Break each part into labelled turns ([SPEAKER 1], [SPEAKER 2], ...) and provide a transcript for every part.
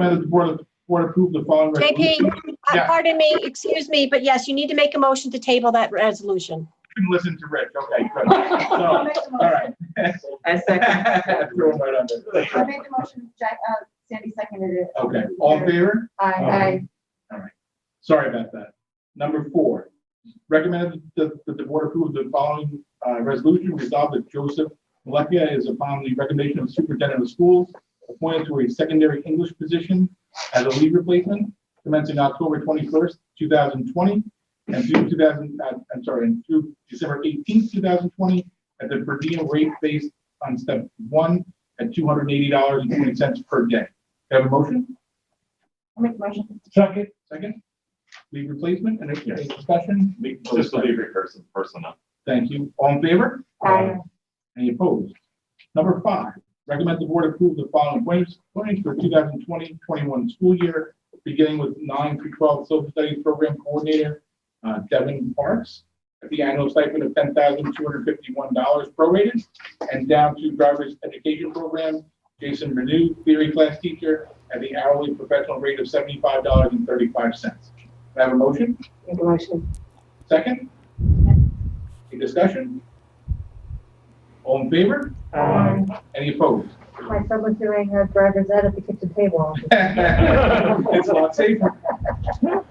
[SPEAKER 1] Recommend that the board, board approve the following resolution.
[SPEAKER 2] JP, uh,
[SPEAKER 1] Yeah.
[SPEAKER 2] pardon me, excuse me, but yes, you need to make a motion to table that resolution.
[SPEAKER 1] You can Listen to Rick, okay, good. So, all right.
[SPEAKER 3] I second.
[SPEAKER 1] Throw him right
[SPEAKER 4] I
[SPEAKER 1] under.
[SPEAKER 4] made the motion, Jack, uh, Sandy seconded it.
[SPEAKER 1] Okay, all in favor?
[SPEAKER 4] Aye, aye.
[SPEAKER 1] Sorry about that. Number four, recommend that that the board approve the following uh, resolution, resolve that Joseph Malecka is upon the recommendation of superintendent of schools appointed to a secondary English position as a lead replacement commencing October twenty-first, two thousand twenty, and through two thousand, uh, I'm sorry, and through December eighteenth, two thousand twenty, at the per diem rate based on step one at two hundred and eighty dollars and twenty cents per day. Do you Have a motion?
[SPEAKER 4] I'll make the motion.
[SPEAKER 1] Second. Second. Leave replacement, and if there's discussion,
[SPEAKER 5] Just the lead person, personnel.
[SPEAKER 1] thank you. All in favor?
[SPEAKER 4] Aye.
[SPEAKER 1] Any opposed? Number five, recommend the board approve the following appointments appointments for 2020-21 school year, beginning with nine through 12 social studies program coordinator, uh, Devin Parks, at the annual stipend of $10,251 prorated, and down to driver's education program, Jason Renew, theory class teacher, at the hourly professional rate of $75.35. Can I Have a motion?
[SPEAKER 4] Make the motion.
[SPEAKER 1] Second? Any discussion? All in favor?
[SPEAKER 4] Aye.
[SPEAKER 1] Any opposed?
[SPEAKER 4] My son was doing a driver's ed at the kitchen table.
[SPEAKER 1] It's a lot safer.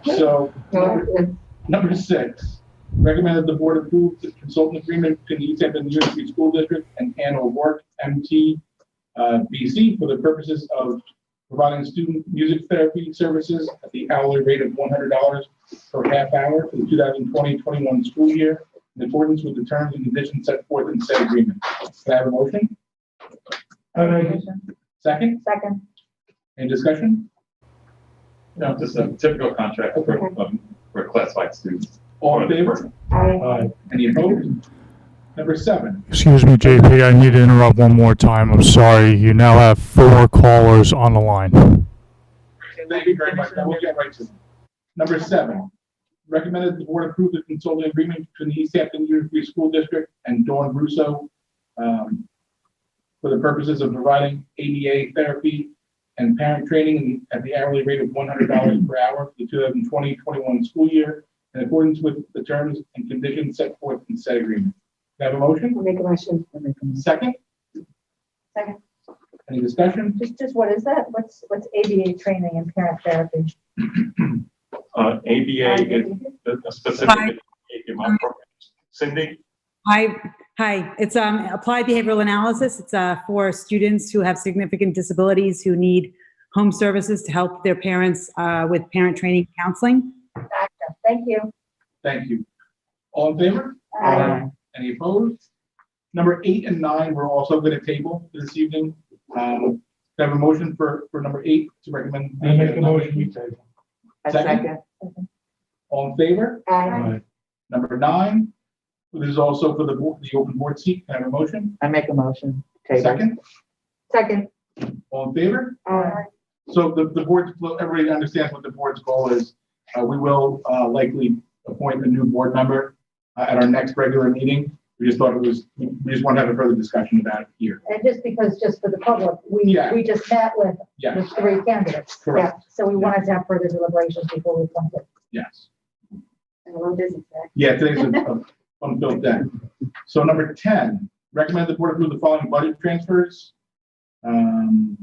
[SPEAKER 1] So, number- number six, recommend that the board approve the consultant agreement between the East Hampton University School District and Ann O'Rourke, MT, uh, BC, for the purposes of providing student music therapy services at the hourly rate of one hundred dollars per half hour for the 2020-21 school year in accordance with the terms and conditions set forth in said agreement. Can I have a motion? Second,
[SPEAKER 4] Second.
[SPEAKER 1] any discussion?
[SPEAKER 5] No, just a typical contract for, um, for classified students.
[SPEAKER 1] All in favor?
[SPEAKER 4] Aye.
[SPEAKER 1] Any opposed? Number seven,
[SPEAKER 6] Excuse me, JP, I need to interrupt one more time. I'm sorry. You now have four callers on the line.
[SPEAKER 1] Thank you very much. Now We'll get right to them. Number seven, recommend that the board approve the consulting agreement between the East Hampton Unified School District and Dawn Russo um, for the purposes of providing ADA therapy and parent training at the hourly rate of one hundred dollars per hour for the 2020-21 school year in accordance with the terms and conditions set forth in said agreement. Do I have a motion?
[SPEAKER 4] Make a motion.
[SPEAKER 1] Second?
[SPEAKER 4] Second.
[SPEAKER 1] Any discussion?
[SPEAKER 4] Just, just what is that? What's, what's ABA training and parent therapy?
[SPEAKER 5] Uh, ABA is a specific
[SPEAKER 7] Hi.
[SPEAKER 5] education program. Cindy,
[SPEAKER 7] Hi, hi, it's um, Applied Behavioral Analysis. It's uh, for students who have significant disabilities who need home services to help their parents uh, with parent training counseling.
[SPEAKER 4] Gotcha. Thank you.
[SPEAKER 1] Thank you. All in favor?
[SPEAKER 4] Aye.
[SPEAKER 1] Any opposed? Number eight and nine, we're also going to table this evening. Um, do I Have a motion for, for number eight to recommend.
[SPEAKER 8] I make a motion, we table.
[SPEAKER 3] I second.
[SPEAKER 1] All in favor?
[SPEAKER 4] Aye.
[SPEAKER 1] Number nine, this is also for the, bo- the open board seat. Can I have a motion?
[SPEAKER 3] I make a motion. Table.
[SPEAKER 1] Second,
[SPEAKER 4] Second.
[SPEAKER 1] all in favor?
[SPEAKER 4] Aye.
[SPEAKER 1] So the, the board, everybody understands what the board's goal is. Uh, we will, uh, likely appoint a new board member uh, at our next regular meeting. We just thought it was, we just want to have a further discussion about it here.
[SPEAKER 4] And just because, just for the public, we,
[SPEAKER 1] Yeah.
[SPEAKER 4] we just met with
[SPEAKER 1] Yes,
[SPEAKER 4] the three candidates.
[SPEAKER 1] Correct.
[SPEAKER 4] Yeah, So we wanted to have further deliberations before we come to.
[SPEAKER 1] yes.
[SPEAKER 4] A little busy,
[SPEAKER 1] Yeah, today's a a unfilled day. So number ten, recommend the board approve the following budget transfers. Um,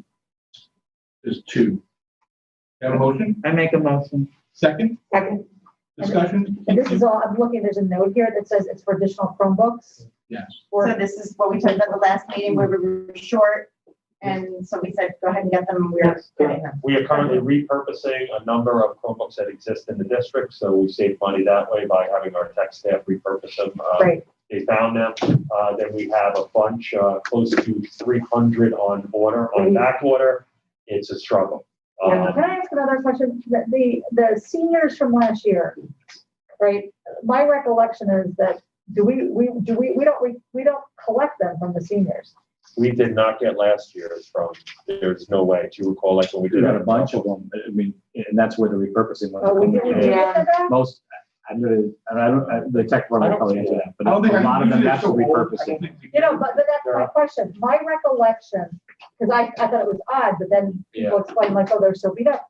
[SPEAKER 1] There's two. Have a motion?
[SPEAKER 3] I make a motion.
[SPEAKER 1] Second,
[SPEAKER 4] Second.
[SPEAKER 1] discussion?
[SPEAKER 4] And this is all, I'm looking, there's a note here that says it's for additional Chromebooks.
[SPEAKER 1] Yes.
[SPEAKER 4] Or-
[SPEAKER 9] So this is what we talked about the last meeting where we were short. And so we said, go ahead and get them. We're getting them.
[SPEAKER 10] We are currently repurposing a number of Chromebooks that exist in the district, so we save money that way by having our tech staff repurpose them. Uh,
[SPEAKER 4] Right.
[SPEAKER 10] They found them, uh, then we have a bunch, uh, close to three hundred on order, on back order. It's a struggle.
[SPEAKER 4] Mm-hmm. Yeah.
[SPEAKER 10] Um,
[SPEAKER 4] Can I ask another question? The, the, the seniors from last year, right? My recollection is that, do we, we, do we, we don't, we, we don't collect them from the seniors.
[SPEAKER 10] we did not get last year's from, there's no way, do you recall, like when we did.
[SPEAKER 11] We got a bunch of them, I mean, and that's where the repurposing
[SPEAKER 4] Oh, we
[SPEAKER 11] ones
[SPEAKER 4] did, we
[SPEAKER 11] come
[SPEAKER 4] did
[SPEAKER 11] in.
[SPEAKER 4] get them back?
[SPEAKER 11] Most, I'm gonna, and I don't, I- the tech
[SPEAKER 10] I
[SPEAKER 11] department
[SPEAKER 10] don't
[SPEAKER 11] will probably
[SPEAKER 10] think-
[SPEAKER 11] answer that,
[SPEAKER 1] I
[SPEAKER 11] but
[SPEAKER 1] don't think
[SPEAKER 11] a
[SPEAKER 1] I-
[SPEAKER 11] lot of them,
[SPEAKER 1] usually it's
[SPEAKER 11] that's
[SPEAKER 1] so old, I don't
[SPEAKER 11] repurposing.
[SPEAKER 1] think we-
[SPEAKER 4] You know, but, but that's my question. My recollection Because I, I thought it was odd, but then people explained like, oh, they're so beat up.